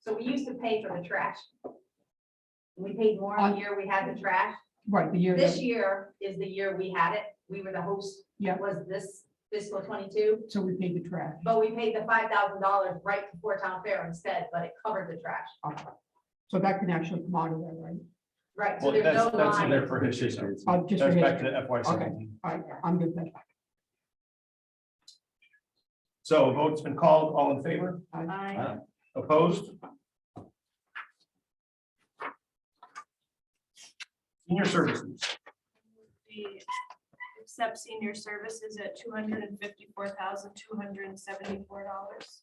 So we used to pay for the trash. We paid more on the year we had the trash. Right, the Uh, year This that, year is the year we had it. We were the host. Yeah. Was this fiscal twenty-two, so we paid the trash. but we paid the five thousand dollars right before town fair instead, but it covered the trash. So that can actually come out of there, right? Right, so Well, there's no that's, that's in line. there for his history. Oh, just for That's back history. to FY seventeen. All right, I'm good with that. So a vote's been called, all in favor, Aye. opposed? Senior services, We Accept E senior services at two hundred and fifty-four thousand, two hundred and seventy-four dollars.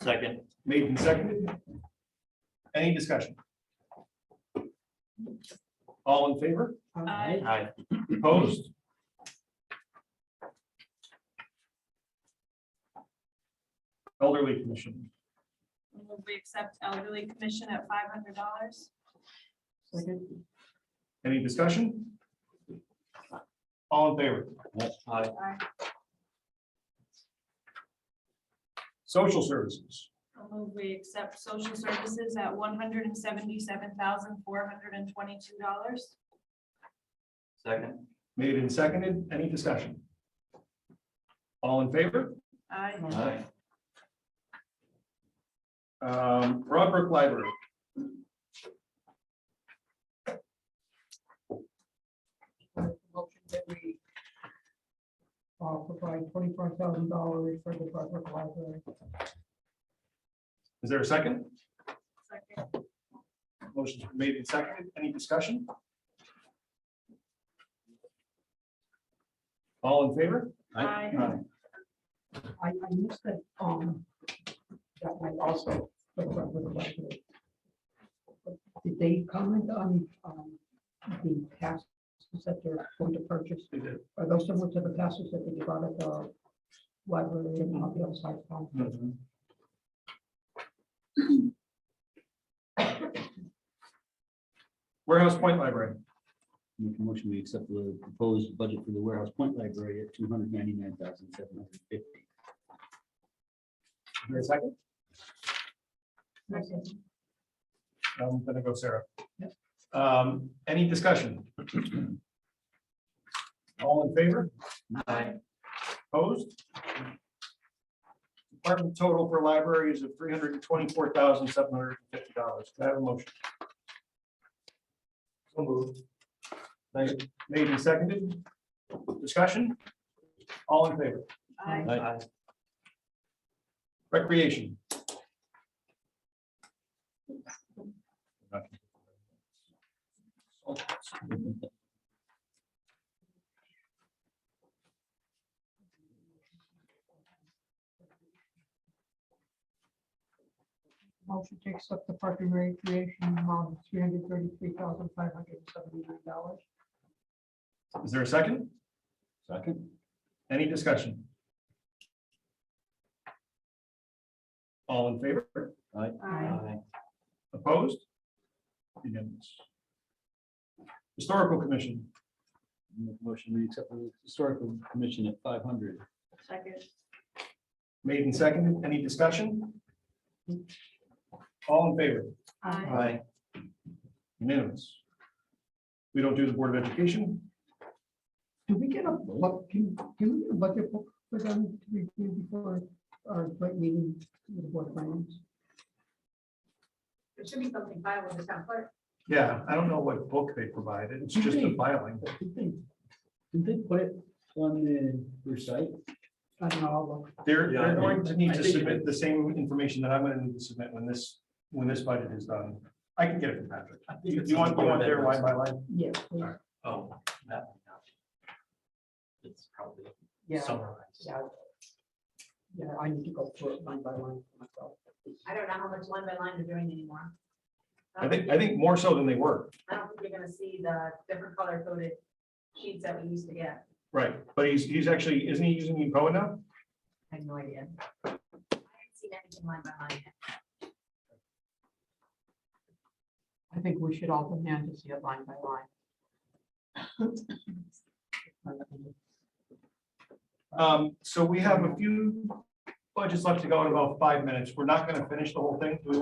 Second, made and seconded. Any discussion? All in favor, uh, Aye. aye, opposed? Elderly commission, We accept elderly commission at five hundred dollars. Second, any discussion? All in favor, aye, social services, We accept social services at one hundred and seventy-seven thousand, four hundred and twenty-two dollars. second, made and seconded, any discussion? All in favor? Aye. aye, Um, Broadbrook Library, uh, motion that we uh, provide twenty-five thousand dollars for the Brunswick Library. is there a second? Second. Motion's been made and seconded. Any discussion? All in favor? Aye. I, I missed that, um, that might also, for the Brunswick Library. Did they comment on, um, the passes that they're going to purchase? They did. Are those similar to the passes that they give out at the library and on the outside? um, Warehouse Point Library, Make a motion, we accept the proposed budget for the warehouse point library at two hundred ninety-nine thousand seven hundred fifty. Is there a second? I'm gonna go Sarah. Um, Any discussion? All in favor? aye, Opposed? Department total for library is of three hundred and twenty-four thousand, seven hundred and fifty dollars. Can I have a motion? So moved. Made made and seconded. Discussion? All in favor? Aye. aye, Recreation. Motion to accept the park and recreation amount of three hundred thirty-three thousand five hundred seventy-nine dollars. Is there a second? Second. Any discussion? All in favor? Aye. aye, Opposed? Unanimous. Historical Commission, Make a motion, we accept the historical commission at five hundred. Second. made and seconded, any discussion? All in favor? Uh, Aye. aye, Unanimous. We don't do the Board of Education, Do we get a, what, can, can we get a budget book for them to review before our joint meeting with the board of finance? There should be something filed with the town clerk. yeah, I don't know what book they provided, it's just a filing. Did they, did they put it on the, their site? I don't know, I'll look. They're, they're Yeah. going to need I to think- submit the same information that I'm gonna need to submit when this, when this budget is done. I can get it from Patrick. You you want, you want their line by line? yeah. please. Alright. oh, that. one, no. It's probably Yeah, summarized. yeah. Yeah, I need to go through it line by line for myself. I don't know how much line by line they're doing anymore. Um, I think, I think more so than they were. I don't think you're gonna see the different color coded sheets that we used to get. Right, but he's, he's actually, isn't he using Ecoa now? I have no idea. I haven't seen anything line by line. yet. I think we should all go down to see it line by line. Um, so we have a few budgets left to go in about five minutes. We're not gonna finish the whole thing. Do we